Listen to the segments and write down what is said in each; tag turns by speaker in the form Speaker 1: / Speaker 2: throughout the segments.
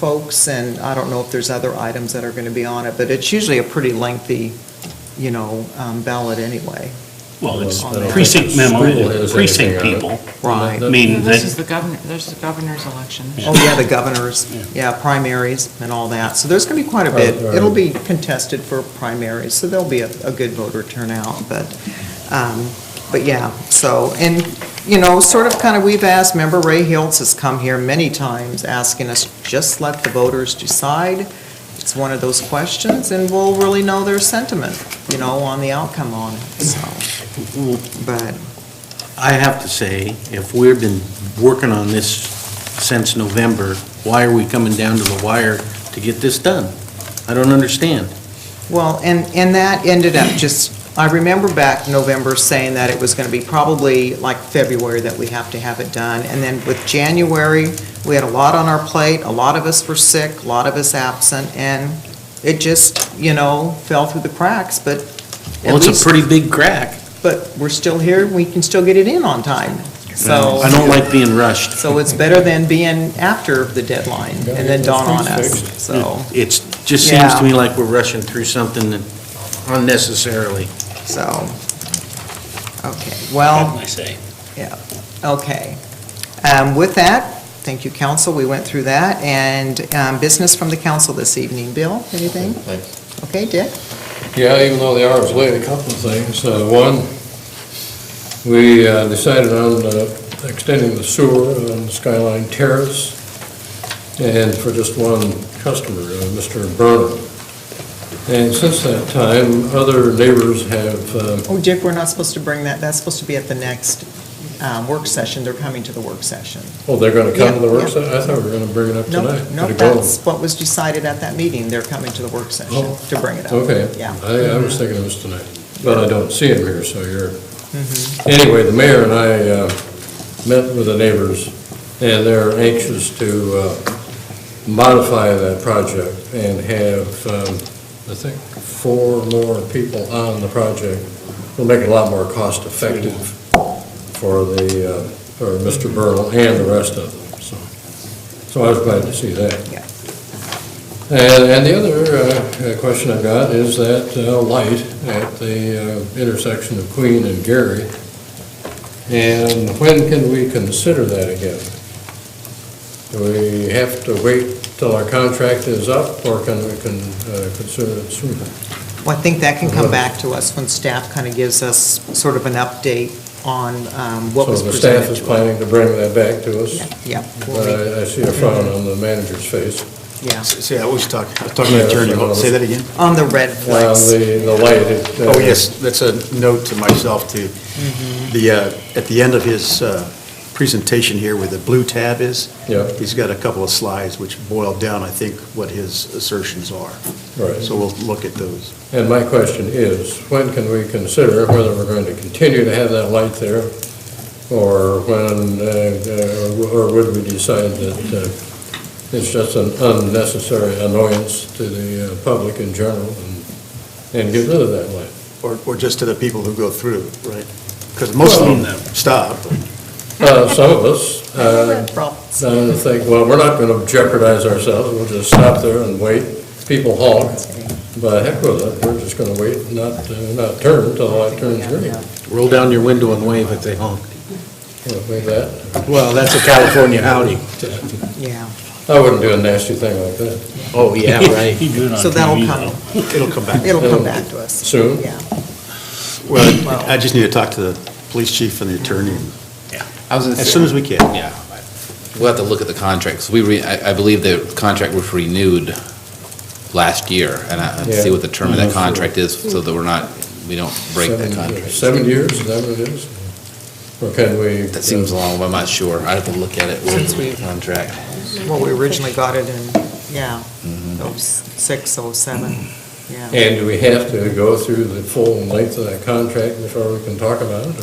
Speaker 1: folks, and I don't know if there's other items that are going to be on it, but it's usually a pretty lengthy, you know, um, ballot anyway.
Speaker 2: Well, it's
Speaker 1: I don't
Speaker 2: precinct
Speaker 3: think the school
Speaker 2: memo,
Speaker 3: has
Speaker 2: precinct
Speaker 3: anything on
Speaker 2: people.
Speaker 1: Right.
Speaker 2: I mean,
Speaker 4: This is
Speaker 2: that,
Speaker 4: the governor, there's the governor's election.
Speaker 1: Oh, yeah, the governors, yeah, primaries and all that. So there's going to be quite a bit.
Speaker 3: Right, right.
Speaker 1: It'll be contested for primaries, so there'll be a, a good voter turnout, but, um, but yeah, so, and, you know, sort of kind of, we've asked, member Ray Hiltz has come here many times asking us, just let the voters decide. It's one of those questions, and we'll really know their sentiment, you know, on the outcome on it, so, but,
Speaker 5: I have to say, if we've been working on this since November, why are we coming down to the wire to get this done? I don't understand.
Speaker 1: Well, and, and that ended up just, I remember back November saying that it was going to be probably like February that we have to have it done. And then with January, we had a lot on our plate, a lot of us were sick, a lot of us absent, and it just, you know, fell through the cracks, but at
Speaker 5: Well, it's a
Speaker 1: least,
Speaker 5: pretty big crack.
Speaker 1: but we're still here, we can still get it in on time. So,
Speaker 5: I don't like being rushed.
Speaker 1: so it's better than being after the deadline and then dawn on us, so,
Speaker 5: It's, just seems
Speaker 1: Yeah.
Speaker 5: to me like we're rushing through something that- unnecessarily.
Speaker 1: so. Okay, well.
Speaker 2: I say,
Speaker 1: Okay. Um, With that, thank you, council, we went through that, and um, business from the council this evening. Bill, anything? Okay, Dick?
Speaker 3: Yeah, even though the hour's late, a couple of things. Uh, One, we uh, decided on uh, extending the sewer on Skyline Terrace, and for just one customer, uh, Mr. Burnham. And since that time, other neighbors have uh,
Speaker 1: Oh, Dick, we're not supposed to bring that, that's supposed to be at the next um, work session, they're coming to the work session.
Speaker 3: Oh, they're going to come to the work
Speaker 1: Yeah, yeah.
Speaker 3: session? I thought we were going to bring it up
Speaker 1: No,
Speaker 3: tonight.
Speaker 1: no,
Speaker 3: Gotta go.
Speaker 1: that's what was decided at that meeting, they're coming to the work session
Speaker 3: Oh,
Speaker 1: to bring it up.
Speaker 3: Okay.
Speaker 1: Yeah.
Speaker 3: I, I was thinking it was tonight, but I don't see him here, so you're, anyway, the mayor and I uh, met with the neighbors, and they're anxious to uh, modify that project and have, um, I think, four more people on the project. It'll make it a lot more cost-effective for the, uh, for Mr. Burl and the rest of them, so. So I was glad to see that.
Speaker 1: Yeah.
Speaker 3: And, and the other uh, uh, question I've got is that uh, light at the uh, intersection of Queen and Gary. And when can we consider that again? Do we have to wait till our contract is up, or can we con- uh, consider it sooner?
Speaker 1: Well, I think that can come back to us when staff kind of gives us sort of an update on um, what was
Speaker 3: So the
Speaker 1: presented
Speaker 3: staff is
Speaker 1: to us.
Speaker 3: planning to bring that back to us,
Speaker 1: Yeah, yeah,
Speaker 3: but
Speaker 1: we'll re-
Speaker 3: I I see a frown on the manager's face.
Speaker 1: yeah,
Speaker 6: Say, I was talking, I was talking to the attorney, What- say that again?
Speaker 1: on the red
Speaker 3: Uh,
Speaker 1: flags.
Speaker 3: The, the light. it, uh,
Speaker 6: Oh, yes, that's a note to myself, too. The, uh, at the end of his uh, presentation here, where the blue tab is,
Speaker 3: Yeah,
Speaker 6: he's got a couple of slides which boil down, I think, what his assertions are.
Speaker 3: right.
Speaker 6: So we'll look at those.
Speaker 3: And my question is, when can we consider whether we're going to continue to have that light there? Or when, uh, uh, or would we decide that uh, it's just an unnecessary annoyance to the uh, public in general and and get rid of that light?
Speaker 6: Or, or just to the people who go through, right? Because most of them stop.
Speaker 3: Uh, Some of us
Speaker 1: Oh,
Speaker 3: uh,
Speaker 1: Problems.
Speaker 3: uh, think, well, we're not going to jeopardize ourselves, we'll just stop there and wait. People honk, but heck with it, we're just going to wait, and not, uh, not turn until the light turns green.
Speaker 5: Roll down your window and wave if they honk.
Speaker 3: Well, maybe that.
Speaker 5: Well, that's a California howdy.
Speaker 1: Yeah,
Speaker 3: I wouldn't do a nasty thing like that.
Speaker 5: Oh, yeah, right.
Speaker 2: you do it on
Speaker 1: so that'll
Speaker 2: TV,
Speaker 1: come,
Speaker 2: though.
Speaker 6: It'll come back.
Speaker 1: it'll
Speaker 3: Oh,
Speaker 1: come back to us.
Speaker 3: Soon?
Speaker 1: Yeah,
Speaker 6: Well, I just need to talk to the police chief and the attorney
Speaker 7: I was gonna
Speaker 6: as soon
Speaker 7: say,
Speaker 6: as we can.
Speaker 7: yeah, we'll have to look at the contracts. We, re- I I believe the contract was renewed last year, and I I'd see
Speaker 3: Yeah.
Speaker 7: what the term of
Speaker 3: Mhm.
Speaker 7: that contract is, so that we're not, we don't break that
Speaker 3: Seven years.
Speaker 7: contract.
Speaker 3: Seven years, is that what it is? Or can we?
Speaker 7: That seems long, but I'm not sure. I'd have to look at it
Speaker 1: Since we-
Speaker 7: with the contract.
Speaker 1: well, we originally got it in, yeah,
Speaker 3: Mm-hmm.
Speaker 1: oh, six, oh, seven, yeah.
Speaker 3: And do we have to go through the full length of that contract before we can talk about it,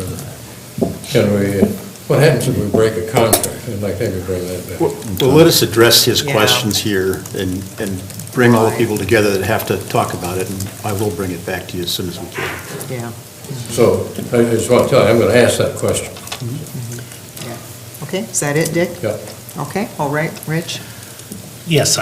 Speaker 3: or can we, what happens if we break a contract? I'd like to have you bring that back.
Speaker 6: Well, well, let us address his
Speaker 1: Yeah.
Speaker 6: questions here and, and bring all the people together that have to talk about it, and I will bring it back to you as soon as we can.
Speaker 3: So, I I just want to tell you, I'm going to ask that question.
Speaker 1: Okay, is that it, Dick?
Speaker 3: Yeah.
Speaker 1: Okay, all right, Rich?
Speaker 2: Yes,